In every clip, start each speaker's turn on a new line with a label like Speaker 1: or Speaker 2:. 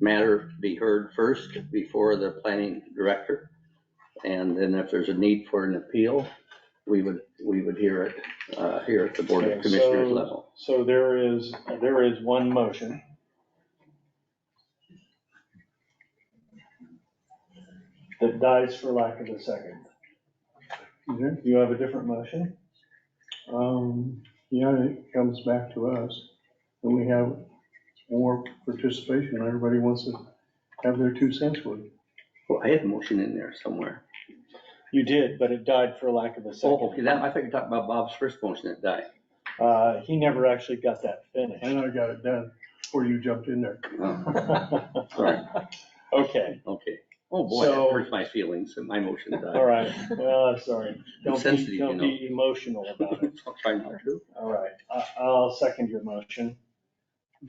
Speaker 1: matter be heard first before the planning director. And then if there's a need for an appeal, we would, we would hear it, uh, here at the Board of
Speaker 2: Okay,
Speaker 1: Commissioners
Speaker 2: so-
Speaker 1: level.
Speaker 2: So there is, there is one motion. That dies for lack of a second. You have a different motion?
Speaker 3: Mm-hmm. Um, yeah, it comes back to us, and we have more participation, everybody wants to have their two cents worth.
Speaker 1: Well, Oh, I had a motion in there somewhere.
Speaker 2: You did, but it died for lack of a
Speaker 1: Oh, okay,
Speaker 2: second.
Speaker 1: that, I thought you were talking about Bob's first motion that died.
Speaker 2: Uh, he never actually got that
Speaker 3: And I got it done before you jumped in there.
Speaker 1: Oh,
Speaker 2: finished.
Speaker 1: sorry,
Speaker 2: Okay,
Speaker 1: okay. Oh, boy, that
Speaker 2: So-
Speaker 1: hurts my feelings, that my motion
Speaker 2: all
Speaker 1: died.
Speaker 2: right, well, I'm sorry. Don't
Speaker 1: sensitive,
Speaker 2: be,
Speaker 1: you
Speaker 2: don't
Speaker 1: know.
Speaker 2: be emotional about it.
Speaker 1: I'll try not to.
Speaker 2: All right, I, I'll second your motion.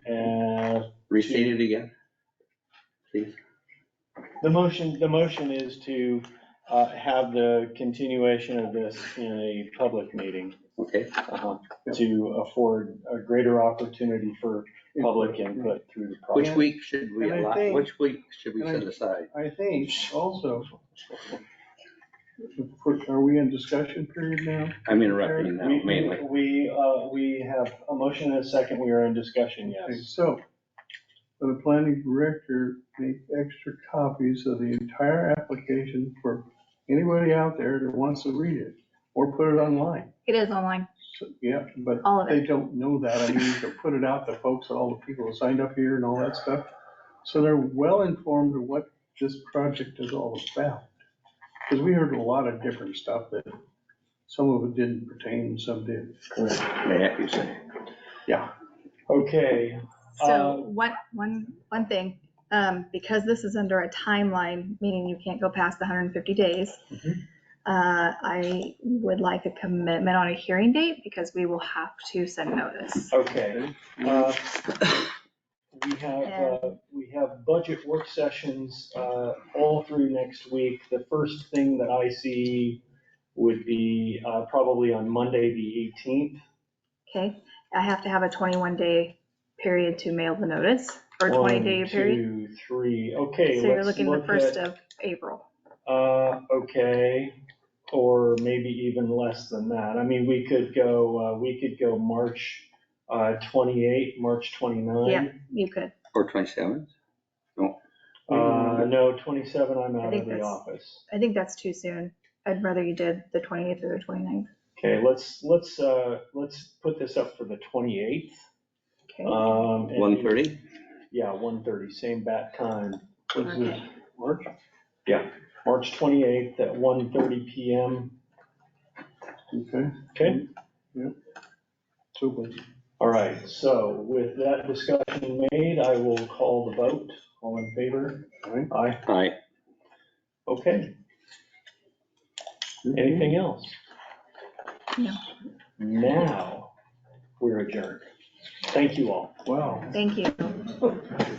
Speaker 2: And
Speaker 1: Restate it again. Please.
Speaker 2: The motion, the motion is to uh, have the continuation of this in a public meeting
Speaker 1: Okay,
Speaker 2: uh, to afford a greater opportunity for public input through the
Speaker 1: which
Speaker 2: process.
Speaker 1: week should we
Speaker 3: And I
Speaker 1: allow,
Speaker 3: think-
Speaker 1: which week should we
Speaker 3: and I-
Speaker 1: set aside?
Speaker 3: I think also, are we in discussion period now?
Speaker 1: I'm interrupting now
Speaker 2: We- we-
Speaker 1: mainly.
Speaker 2: We, uh, we have a motion and a second, we are in discussion,
Speaker 3: Okay,
Speaker 2: yes.
Speaker 3: so, the planning director make extra copies of the entire application for anybody out there that wants to read it, or put it online.
Speaker 4: It is online,
Speaker 3: So, Yeah, but
Speaker 4: all of
Speaker 3: they
Speaker 4: it.
Speaker 3: don't know that. I mean, to put it out to folks, all the people who signed up here and all that stuff. So they're well informed of what this project is all about. Because we heard a lot of different stuff that some of it didn't pertain and some did.
Speaker 2: Correct.
Speaker 1: Yeah, you say.
Speaker 2: Okay,
Speaker 4: So
Speaker 2: uh,
Speaker 4: one, one, one thing, um, because this is under a timeline, meaning you can't go past the hundred and fifty days.
Speaker 2: Mm-hmm.
Speaker 4: Uh, I would like a commitment on a hearing date because we will have to send notice.
Speaker 2: okay. uh, We have, uh, we have budget work sessions uh, all through next week. The first thing that I see would be uh, probably on Monday, the 18th.
Speaker 4: Okay, I have to have a twenty-one day period to mail the notice or
Speaker 2: One,
Speaker 4: twenty day period.
Speaker 2: two, three. okay,
Speaker 4: So you're
Speaker 2: let's
Speaker 4: looking the
Speaker 2: look
Speaker 4: first
Speaker 2: at,
Speaker 4: of April.
Speaker 2: uh, okay, or maybe even less than that. I mean, we could go, uh, we could go March uh, 28, March 29.
Speaker 4: Yeah, you could.
Speaker 1: Or twenty-seventh?
Speaker 2: Uh, No, 27, I'm out
Speaker 4: think
Speaker 2: of the
Speaker 4: that's-
Speaker 2: office.
Speaker 4: I think that's too soon. I'd rather you did the twenty-eighth or the 29th.
Speaker 2: Okay, let's, let's, uh, let's put this up for the twenty-eighth.
Speaker 4: Okay,
Speaker 2: Um. and-
Speaker 1: One thirty?
Speaker 2: Yeah, one thirty, same bat time,
Speaker 3: Was this
Speaker 4: Okay.
Speaker 3: March?
Speaker 2: March twenty-eighth at one thirty P M.
Speaker 3: Okay,
Speaker 2: Okay,
Speaker 3: super.
Speaker 2: all right, so with that discussion made, I will call the vote. All in favor?
Speaker 3: Aye.
Speaker 2: Aye,
Speaker 1: Aye.
Speaker 2: okay. Anything else?
Speaker 4: No.
Speaker 2: Now, we're adjourned. Thank you all.
Speaker 3: Wow.
Speaker 4: thank you.